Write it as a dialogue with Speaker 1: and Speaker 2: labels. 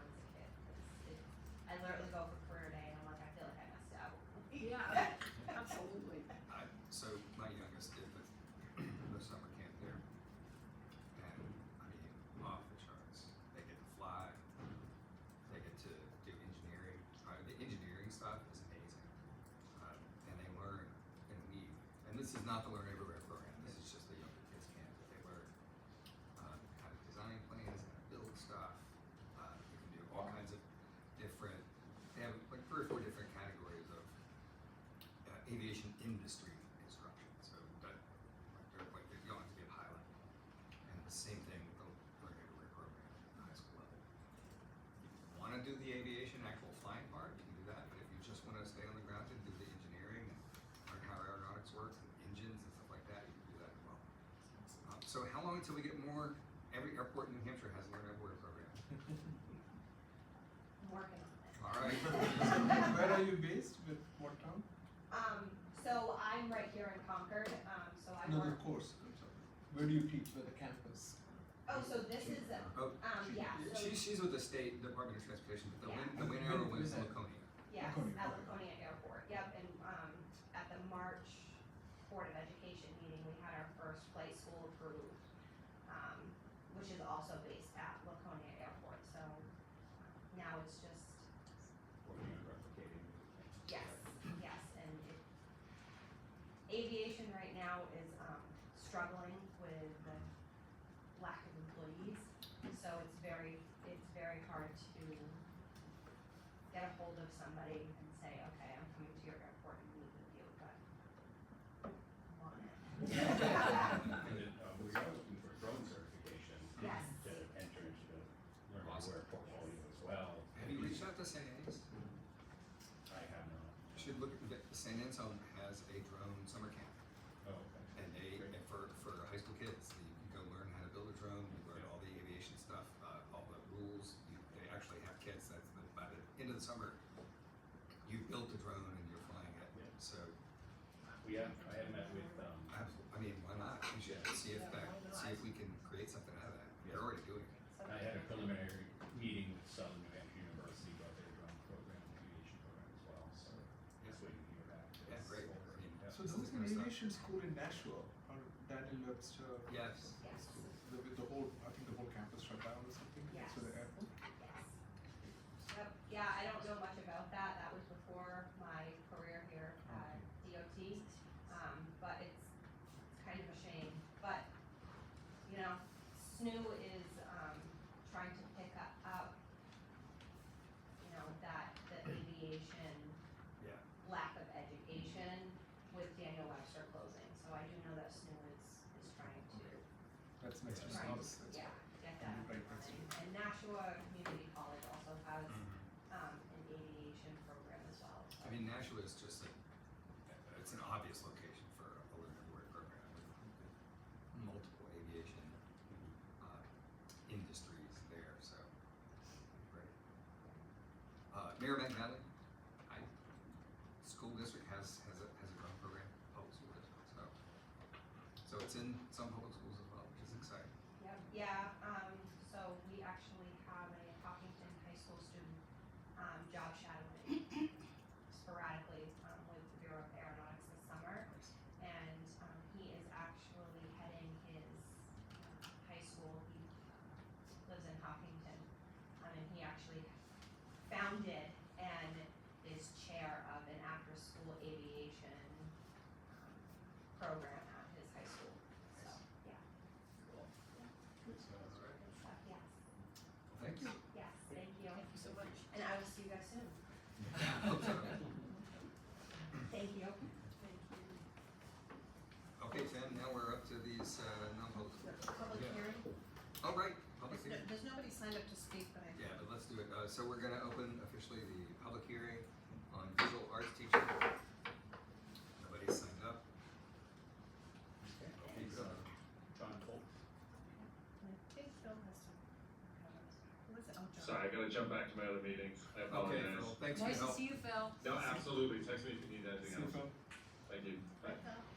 Speaker 1: Uh, Um, um, Uh, uh, Um, long until we get more? Every airport in New Hampshire has a learn everywhere program.
Speaker 2: I'm working on it.
Speaker 1: All right.
Speaker 3: Where are you based with what town?
Speaker 2: Um, so I'm right here in Concord, um, so I
Speaker 3: No, the
Speaker 2: work,
Speaker 3: course, I'm sorry. Where do you teach, where the campus?
Speaker 2: oh, so this is, um,
Speaker 1: Oh,
Speaker 2: yeah, so,
Speaker 1: She, she's with the state Department of Transportation, but the win, the win arrow wins in Laconia.
Speaker 2: yes,
Speaker 3: Laconia,
Speaker 2: at
Speaker 3: okay.
Speaker 2: Laconia Airport, yep, and, um, at the March Board of Education meeting, we had our first flight school approved, um, which is also based at Laconia Airport, so um, now it's just, yes, yes, and it, aviation right now is, um, struggling with the lack of employees, so it's very, it's very hard to get a hold of somebody and say, okay, I'm coming to your airport and meet with you, but I'm on it.
Speaker 4: And it, uh, we are looking for drone certification
Speaker 2: Yes.
Speaker 4: to enter into the learn how to wear portfolio as well.
Speaker 1: Have you reached out to St. Anne's?
Speaker 4: I have not.
Speaker 1: You Should look, at St. Anselm has a drone summer camp.
Speaker 4: Oh, okay.
Speaker 1: And they, and for, for high school kids, you can go learn how to build a drone, you learn all the aviation stuff, uh, all the rules. You, they actually have kids that's, the- by the end of the summer, you built a drone and you're flying it.
Speaker 4: Yeah.
Speaker 1: So,
Speaker 4: We have, I have met with, um,
Speaker 1: I, I mean, why not? We should see if that, see if we can create something out of that. They're already doing it.
Speaker 2: So-
Speaker 4: I had a preliminary meeting with Southern New Hampshire University about their drone program, aviation program as well, so just waiting to hear back.
Speaker 1: Yeah, great. I mean,
Speaker 4: Yeah.
Speaker 3: So there was an aviation school in Nashua, or Daniel Webster.
Speaker 1: Yes.
Speaker 2: Yes,
Speaker 3: School, the, with the whole, I think the whole campus shut down or something,
Speaker 2: Yes.
Speaker 3: so the airport.
Speaker 2: yes. Yep, yeah, I don't know much about that, that was before my career here at DOT, um, but it's kind of a shame, but, you know, SNU is, um, trying to pick up, up, you know, that, the aviation
Speaker 1: Yeah.
Speaker 2: lack of education with Daniel Webster closing, so I do know that SNU is, is trying to
Speaker 3: That's next to my
Speaker 2: Right.
Speaker 3: house. That's-
Speaker 2: Yeah, get that up and running. And Nashua Community College also has, um, an aviation program as well, so.
Speaker 1: I mean, Nashua is just like, uh, it's an obvious location for a learn everywhere program with multiple aviation uh, industries there, so. great. Uh, Merrimack Valley, I, school district has, has a, has a drone program, public school district, so. So it's in some public schools as well, which is exciting.
Speaker 2: Yep, yeah, um, so we actually have a Hopkinton High School student, um, job shadowing sporadically, um, with the Bureau of Aeronautics this summer.
Speaker 1: Nice.
Speaker 2: And, um, he is actually heading his um, high school, he lives in Hopkinton. Um, and he actually founded and is chair of an after-school aviation um, program at his high school, so, yeah.
Speaker 1: All right.
Speaker 2: Good stuff, yes,
Speaker 1: Well, Thank you.
Speaker 2: yes, thank you.
Speaker 5: Thank you so much.
Speaker 2: And I will see you guys soon.
Speaker 1: Hope so.
Speaker 2: Thank you.
Speaker 1: Okay, Tim, now we're up to these uh, non-public schools.
Speaker 5: Public
Speaker 1: Yeah.
Speaker 5: hearing?
Speaker 1: All right, public
Speaker 5: There's
Speaker 1: hearing.
Speaker 5: no- There's nobody signed up to speak, but I.
Speaker 1: Yeah, but let's do it. Uh, so we're gonna open officially the public hearing on visual arts teaching. Nobody's signed up.
Speaker 4: Okay.
Speaker 1: Okay,
Speaker 4: Thanks,
Speaker 1: go.
Speaker 4: uh, John Colt.
Speaker 5: I think Phil has to. Who is it? Oh, John.
Speaker 6: Sorry, I gotta jump back to my other meetings. I
Speaker 1: Okay,
Speaker 6: apologize.
Speaker 1: Phil, thanks for your
Speaker 5: Nice to
Speaker 1: help.
Speaker 5: see you, Phil.
Speaker 6: No, absolutely. Text me if you need anything
Speaker 3: So,
Speaker 6: else. Thank you. Bye.
Speaker 5: Phil.